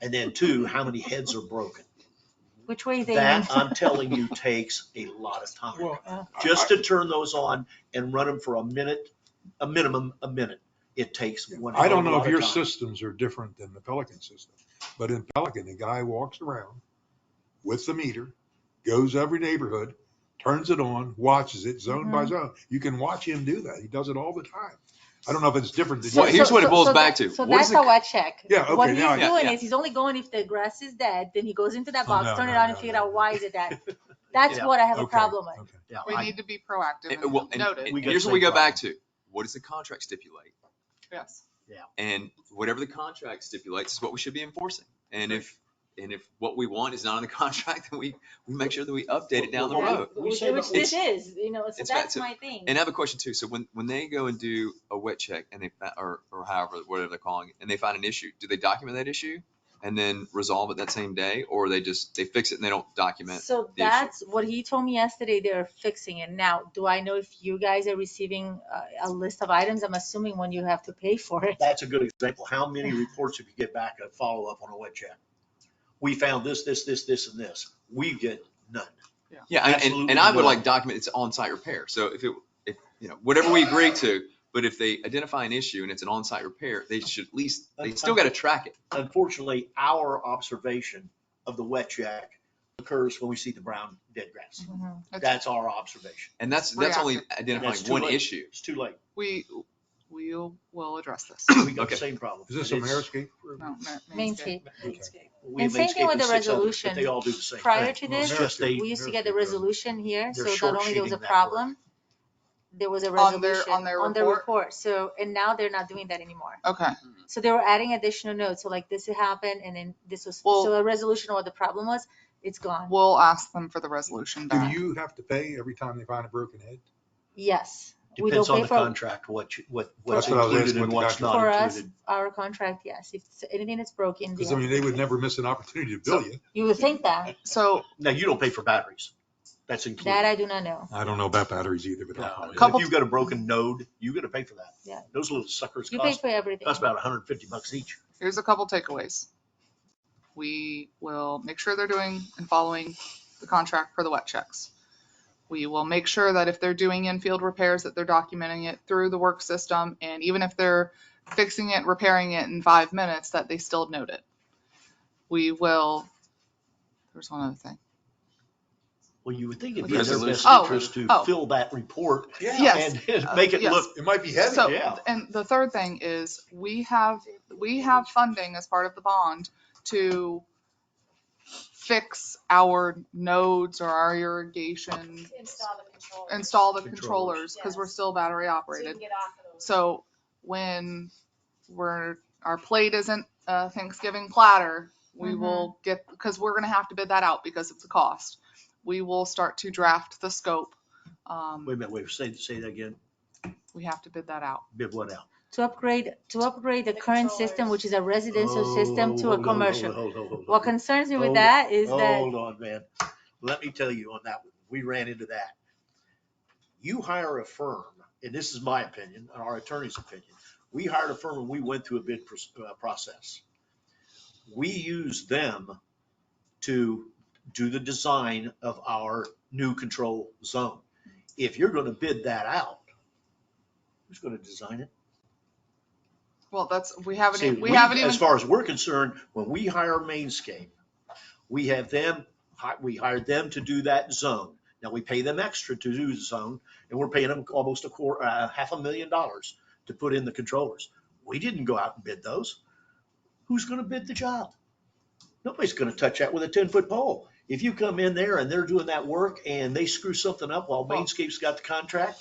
And then two, how many heads are broken? Which way they? That, um, I'm telling you, takes a lot of time. Well, uh, Just to turn those on and run them for a minute, a minimum, a minute, it takes one. I don't hell know of if a your lot of time. systems are different than the Pelican system, but in Pelican, the guy walks around with the meter, goes every neighborhood, turns it on, watches it zone by Mm-hmm. zone. You can watch him do that. He does it all the time. I don't know if it's different. than So- Well, here's so- what it so- boils so back that- to. So What is that's the- how I check. Yeah, okay, What he's now I- Yeah, doing yeah. is he's only going if the grass is dead, then he goes into that Oh, box, no, turn it no, on and no, figure no. out why is it dead. That's Yeah. what I have a Okay, problem with. okay. Yeah, We I- need to be proactive And- well, and and- noted, and We got here's the what we same go back to. What does the contract stipulate? yes. And whatever the contract stipulates is what we should be enforcing. And if, and if what we want is not in the contract, then we, we make sure that we update it down the Well, road. we Which say which that- this is, you know, so it's back that's to- my thing. And I have a question too. So when, when they go and do a wet check and they, fi- or, or however, whatever they're calling it, and they find an issue, do they document that issue? And then resolve it that same day, or they just, they fix it and they don't document? So the issue. that's what he told me yesterday, they're fixing it. Now, do I know if you guys are receiving uh, a, a list of items? I'm assuming when you have to pay for it. That's a good example. How many reports have you get back a follow-up on a wet check? We found this, this, this, this, and this. We get none. Yeah, and- and, Absolutely and I would not. like document it's on-site repair. So if it, if, you know, whatever we agree to, but if they identify an issue and it's an on-site repair, they should at least, they still gotta track it. Unfortunately, our observation of the wet check occurs when we see the brown dead grass. That's our observation. And that's, that's only identifying That's too one late. issue. It's too late. We, we'll, we'll address this. We got the Okay. same problem. Is this a And it's- Mariscape? Oh, No, Ma- Mainscape. Mainscape. Okay. we have And same thing Manscaped with the and six others, resolution. But they all do the same. Prior thing. to Well, this, It's just they, we used to get the Mariscape does. resolution here, so They're not only there was short-shooting a that work. problem, there was a On their- resolution on their on the report? report. So, and now they're not doing that anymore. Okay, So they were adding additional notes. So like this happened and then this was, Well- so a resolution of what the problem was, it's gone. we'll ask them for the resolution Do back. you have to pay every time they find a broken head? Yes. We depends don't on pay the for- contract, what, you- what, what's what I was included asking and what the what's For not us, included. our contract, yes. If it's anything that's broken, Because I mean, yes. they would never miss an opportunity to bill you. you would think that. So Now, you don't pay for batteries. That's included. That I do not know. I don't know about batteries either, but. No, I'll- and Couple- If you've got a broken node, you gotta pay for that. Yeah. Those little suckers You pay cost, for everything. cost about hundred and fifty bucks each. here's a couple takeaways. We will make sure they're doing and following the contract for the wet checks. We will make sure that if they're doing in-field repairs, that they're documenting it through the work system. And even if they're fixing it, repairing it in five minutes, that they still note it. We will, there's one other thing. Well, you would think it'd With be in their best resolution. Oh, interest to oh. fill that report Yes. and Uh, make it yes. look, It might be heavy. So, yeah. and the third thing is, we have, we have funding as part of the bond to fix our nodes or our irrigation, Install the control. install the Controllers. controllers, because we're Yes. still battery So you operated. can get off of those. So when we're, our plate isn't a Thanksgiving platter, we will get, because we're gonna have to bid that out because of the cost. We will start to draft the scope. Um, Wait a minute, wait, say, say that again, we have to bid that out. bid what out? To upgrade, to upgrade the The current system, controllers. which is a residential Oh, system, hold on, to a hold on, commercial. hold on, hold on, What hold on. concerns me with Hold that is that, Hold on, Oh, man. Let me tell you on that one, we ran into that. You hire a firm, and this is my opinion, and our attorney's opinion. We hired a firm and we went through a bid pros- uh, process. We used them to do the design of our new control zone. If you're going to bid that out, who's going to design it? Well, that's, we haven't, See, e- we haven't even. As far as we're concerned, when we hire Mainscape, we have them, hi- we hired them to do that zone. Now, we pay them extra to do the zone, and we're paying them almost a quarter, uh, half a million dollars to put in the controllers. We didn't go out and bid those. Who's gonna bid the job? Nobody's gonna touch that with a ten-foot pole. If you come in there and they're doing that work and they screw something up while Well- Mainscape's got the contract,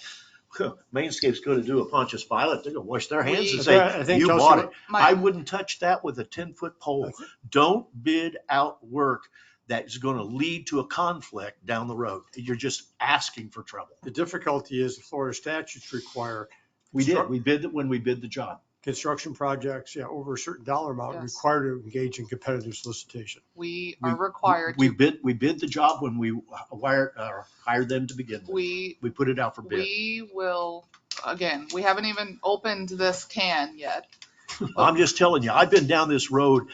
Mainscape's gonna do a Pontius Pilate, they're gonna wash their hands and We- I say, think you Chelsea- bought it. My- I wouldn't touch that with a ten-foot pole. Don't bid out work that's going to lead to a conflict down the road. You're just asking for trouble. The difficulty is the Florida statutes require We did, Sure. we bid it when we bid the job. construction projects, yeah, over a certain dollar amount, Yes. required to engage in competitive solicitation. We are We- required We to, bid, we bid the job when we wired, uh, hired them to begin with. we, We put it out for bid. we will, again, we haven't even opened this can yet. I'm just telling you, I've been down this road